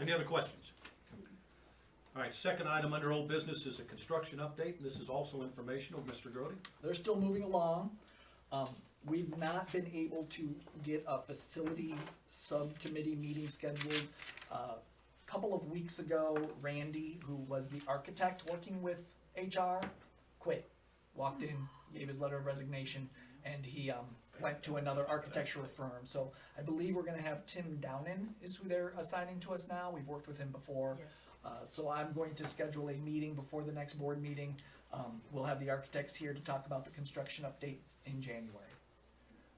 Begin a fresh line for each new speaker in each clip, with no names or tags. Any other questions? All right, second item under old business is a construction update, and this is also informational, Mr. Grody.
They're still moving along. Um, we've not been able to get a facility subcommittee meeting scheduled. A Couple of weeks ago, Randy, who was the architect working with HR, quit. Walked in, gave his letter of resignation, and he, um, went to another architectural firm. So I believe we're gonna have Tim Downen is who they're assigning to us now. We've worked with him before. Uh, so I'm going to schedule a meeting before the next board meeting. Um, we'll have the architects here to talk about the construction update in January.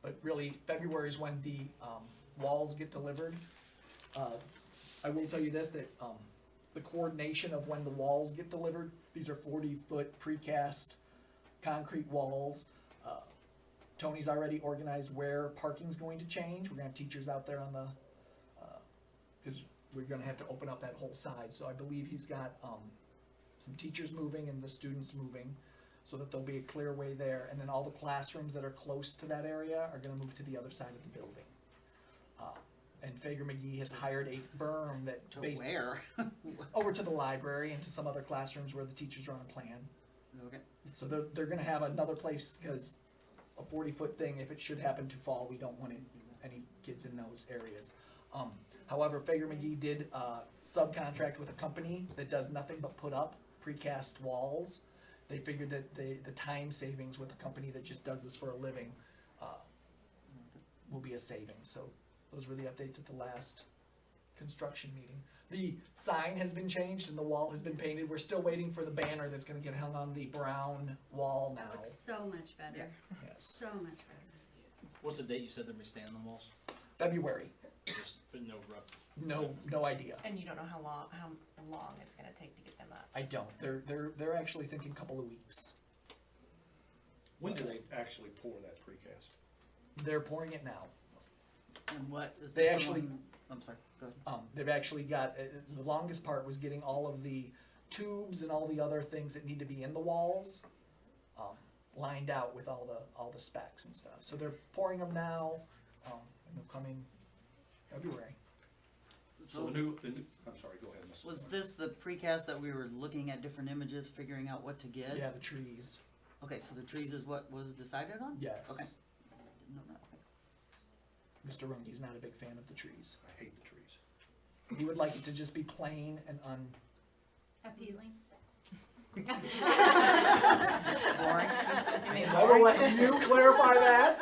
But really, February is when the, um, walls get delivered. Uh, I will tell you this, that, um, the coordination of when the walls get delivered, these are forty-foot precast concrete walls. Uh, Tony's already organized where parking's going to change. We're gonna have teachers out there on the, because we're gonna have to open up that whole side, so I believe he's got, um, some teachers moving and the students moving, so that there'll be a clear way there, and then all the classrooms that are close to that area are gonna move to the other side of the building. Uh, And Fager McGee has hired a berm that.
To
bas-
where?
Over to the library and to some other classrooms where the teachers are on plan,
Okay.
so they're, they're gonna have another place, because a forty-foot thing, if it should happen to fall, we don't want it any kids in those areas. Um, however, Fager McGee did, uh, subcontract with a company that does nothing but put up precast walls. They figured that the, the time savings with a company that just does this for a living, uh, will be a saving, so those were the updates at the last construction meeting. The sign has been changed and the wall has been painted, we're still waiting for the banner that's gonna get hung on the brown wall
That
now,
looks so much better,
yes,
so much better.
What's the date you said they're gonna stand on the walls?
February,
Just, but no rough.
no, no idea.
And you don't know how long, how long it's gonna take to get them up.
I don't. They're they're they're actually thinking couple of weeks.
When do they actually pour that precast?
They're pouring it now.
And what is
They
this the
actually-
one- I'm sorry, go ahead.
Um, they've actually got uh, the longest part was getting all of the tubes and all the other things that need to be in the walls um, lined out with all the all the specs and stuff. So they're pouring them now, um, and they'll come in February.
So the
So
new, the new, I'm sorry, go ahead, Mrs.
was
Thorne.
this the precast that we were looking at different images, figuring out what to get?
Yeah, the trees.
Okay, so the trees is what was decided on?
Yes.
Okay. Didn't know that. Okay.
Mr. Runge's not a big fan of the trees.
I hate the trees.
He would like it to just be plain and un.
Appealing.
Boring.
Never let you clarify that.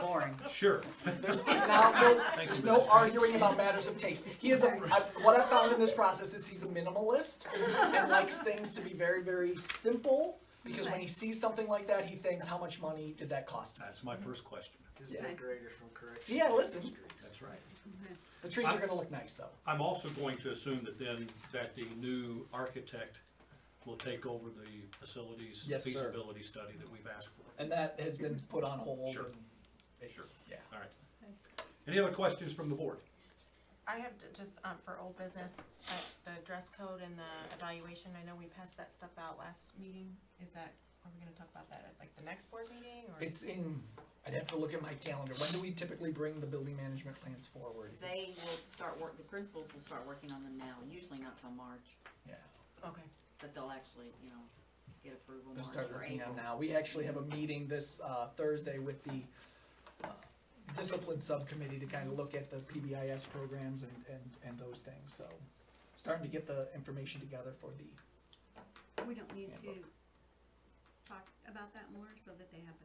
Boring.
Sure.
There's now no-
Thank you,
There's no
Mrs.
arguing about matters of taste. He is a, I, what I found in this process is he's a minimalist and likes things to be very, very simple. Because when he sees something like that, he thinks, how much money did that cost me?
That's my first question.
His
Yeah.
decorator from Correct.
See, I listened.
That's right.
The trees are gonna look nice though.
I'm also going to assume that then, that the new architect will take over the facilities
Yes, sir.
feasibility study that we've asked for.
And that has been put on hold
Sure.
and it's, yeah.
All right. Any other questions from the board?
I have to just, um, for old business, uh, the dress code and the evaluation, I know we passed that stuff out last meeting. Is that, are we gonna talk about that at like the next board meeting or?
It's in, I'd have to look at my calendar. When do we typically bring the building management plans forward?
They
It's-
will start work, the principals will start working on them now, usually not till March,
Yeah,
Okay,
but they'll actually, you know, get approval
they'll
March
start
or
working on
April.
now. We actually have a meeting this, uh, Thursday with the uh, discipline subcommittee to kind of look at the PBIS programs and, and, and those things, so. Starting to get the information together for the,
We don't need to
Handbook.
talk about that more so that they have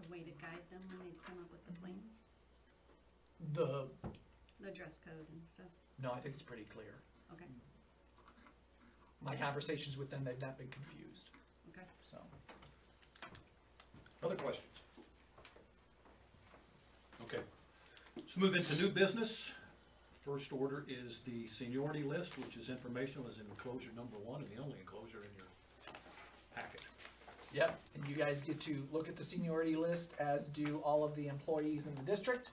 a, a way to guide them when they come up with the plans,
the,
the dress code and stuff.
no, I think it's pretty clear.
Okay,
My conversations with them, they've not been confused,
okay.
so.
Other questions? Okay, let's move into new business. First order is the seniority list, which is informational, is in enclosure number one and the only enclosure in your packet.
Yep, and you guys get to look at the seniority list, as do all of the employees in the district.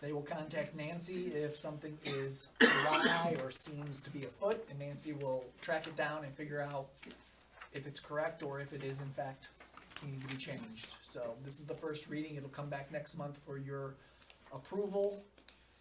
They will contact Nancy if something is awry or seems to be afoot, and Nancy will track it down and figure out if it's correct or if it is in fact needing to be changed. So this is the first reading, it'll come back next month for your approval,